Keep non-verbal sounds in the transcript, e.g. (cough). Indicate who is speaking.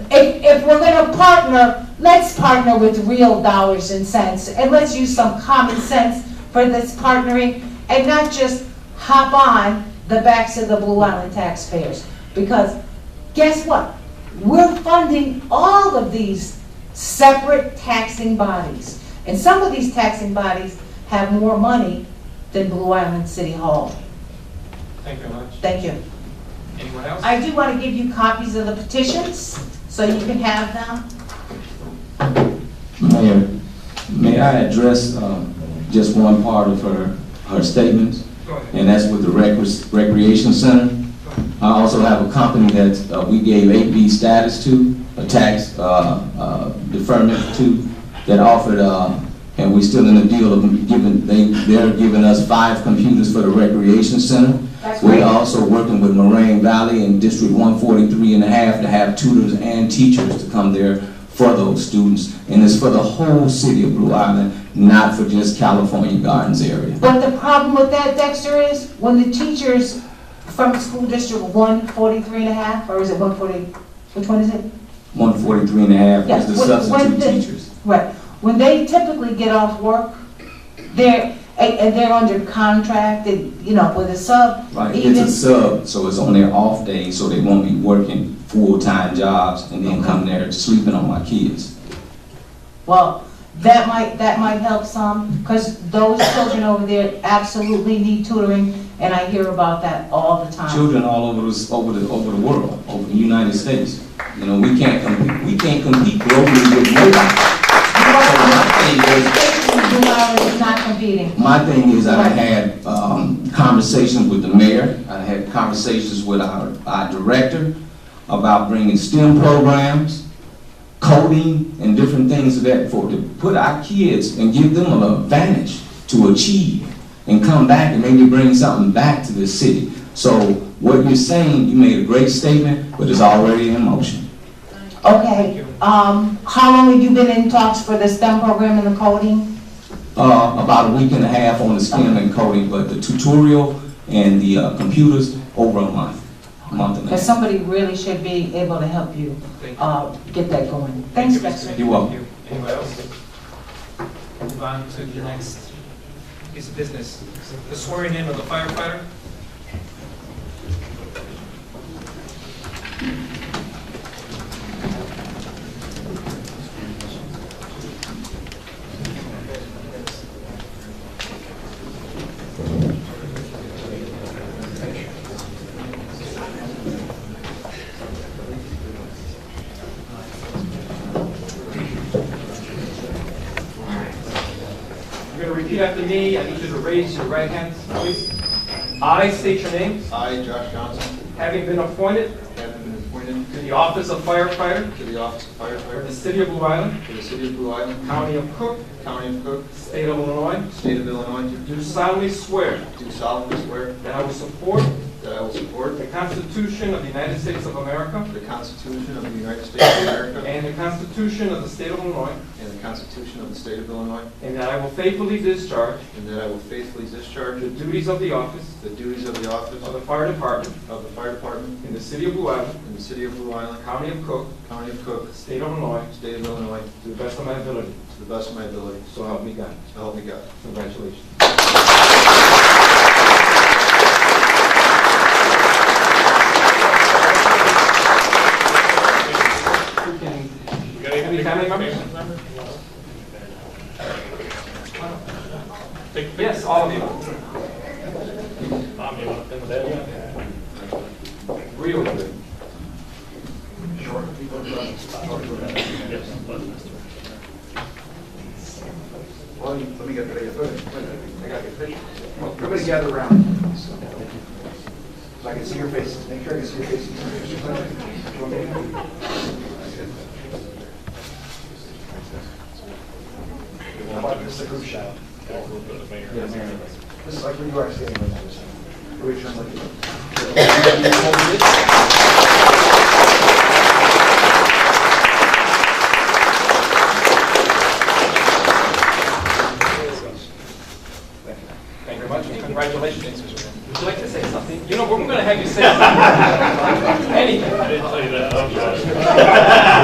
Speaker 1: partner, let's partner with real dollars and cents, and let's use some common sense for this partnering, and not just hop on the backs of the Blue Island taxpayers. Because guess what? We're funding all of these separate taxing bodies. And some of these taxing bodies have more money than Blue Island City Hall.
Speaker 2: Thank you very much.
Speaker 1: Thank you.
Speaker 2: Anyone else?
Speaker 1: I do want to give you copies of the petitions, so you can have them.
Speaker 3: Mayor, may I address um, just one part of her, her statements?
Speaker 2: Go ahead.
Speaker 3: And that's with the recre- recreation center. I also have a company that uh, we gave 8B status to, a tax uh, uh, deferment to, that offered, uh, and we still in the deal of giving, they, they're giving us five computers for the recreation center.
Speaker 1: That's great.
Speaker 3: We're also working with Moraine Valley and District 143 and a half to have tutors and teachers to come there for those students. And it's for the whole city of Blue Island, not for just California Gardens area.
Speaker 1: But the problem with that, Dexter, is when the teachers from school district 143 and a half, or is it 140, which one is it?
Speaker 3: 143 and a
Speaker 1: Yeah,
Speaker 3: half is the
Speaker 1: when- when
Speaker 3: substitute
Speaker 1: the-
Speaker 3: teachers.
Speaker 1: Right, when they typically get off work, they're, and and they're under contract, and, you know, with a sub,
Speaker 3: Right, it's
Speaker 1: even,
Speaker 3: a sub, so it's on their off days, so they won't be working full-time jobs and then come there sleeping on my kids.
Speaker 1: well, that might, that might help some, because those children over there absolutely need tutoring, and I hear about that all the time.
Speaker 3: Children all over this, over the, over the world, over the United States. You know, we can't compete, we can't compete globally with nobody. So my thing is,
Speaker 1: Blue Island is not competing.
Speaker 3: My thing is, I
Speaker 1: Right.
Speaker 3: had um, conversations with the mayor, I had conversations with our, our director about bringing STEM programs, coding, and different things of that for, to put our kids and give them an advantage to achieve and come back and maybe bring something back to the city. So what you're saying, you made a great statement, but it's already in motion.
Speaker 1: Okay, um, how long have you been in talks for the STEM program and the coding?
Speaker 3: Uh, about a week and a half on the STEM and coding, but the tutorial and the uh, computers, over a month, a month and a half.
Speaker 1: Because somebody really should be able to help you,
Speaker 2: Thank you.
Speaker 1: uh, get that going.
Speaker 2: Thank
Speaker 1: Thanks,
Speaker 2: you,
Speaker 1: Dexter.
Speaker 2: Mr.
Speaker 3: You're welcome.
Speaker 2: Thank you. Anyone else? Move on to the next piece of business. The swearing in of the firefighter. You're going to repeat after me. I need you to raise your right hand, please. I state your name,
Speaker 4: I, Josh Johnson,
Speaker 2: having been appointed
Speaker 4: have been appointed
Speaker 2: to the office of firefighter
Speaker 4: to the office of
Speaker 2: for the
Speaker 4: firefighter
Speaker 2: city of Blue Island,
Speaker 4: for the city of Blue Island,
Speaker 2: county of Cook,
Speaker 4: county of Cook,
Speaker 2: state of Illinois,
Speaker 4: state of Illinois,
Speaker 2: do solemnly swear
Speaker 4: do solemnly swear
Speaker 2: that I will support
Speaker 4: that I will support
Speaker 2: the Constitution of the United States of America
Speaker 4: the Constitution of the United States of America
Speaker 2: and the Constitution of the state of Illinois,
Speaker 4: and the Constitution of the state of Illinois,
Speaker 2: and that I will faithfully discharge
Speaker 4: and that I will faithfully discharge
Speaker 2: the duties of the office
Speaker 4: the duties of the office
Speaker 2: of the fire department
Speaker 4: of the fire department
Speaker 2: in the city of Blue Island,
Speaker 4: in the city of Blue Island,
Speaker 2: county of Cook,
Speaker 4: county of Cook,
Speaker 2: state of Illinois,
Speaker 4: state of Illinois,
Speaker 2: to the best of my ability.
Speaker 4: to the best of my ability.
Speaker 2: So help me God.
Speaker 4: So help me God.
Speaker 2: Congratulations. Who can- Any family members? Yes, all of you. Real good.
Speaker 4: Well, let me get ready to
Speaker 2: I got your picture.
Speaker 5: Everybody gather around. So I can see your faces. Make sure I can see your faces. This is a group shot. This is like where you are standing right now. Everybody turn like you.
Speaker 2: (laughs)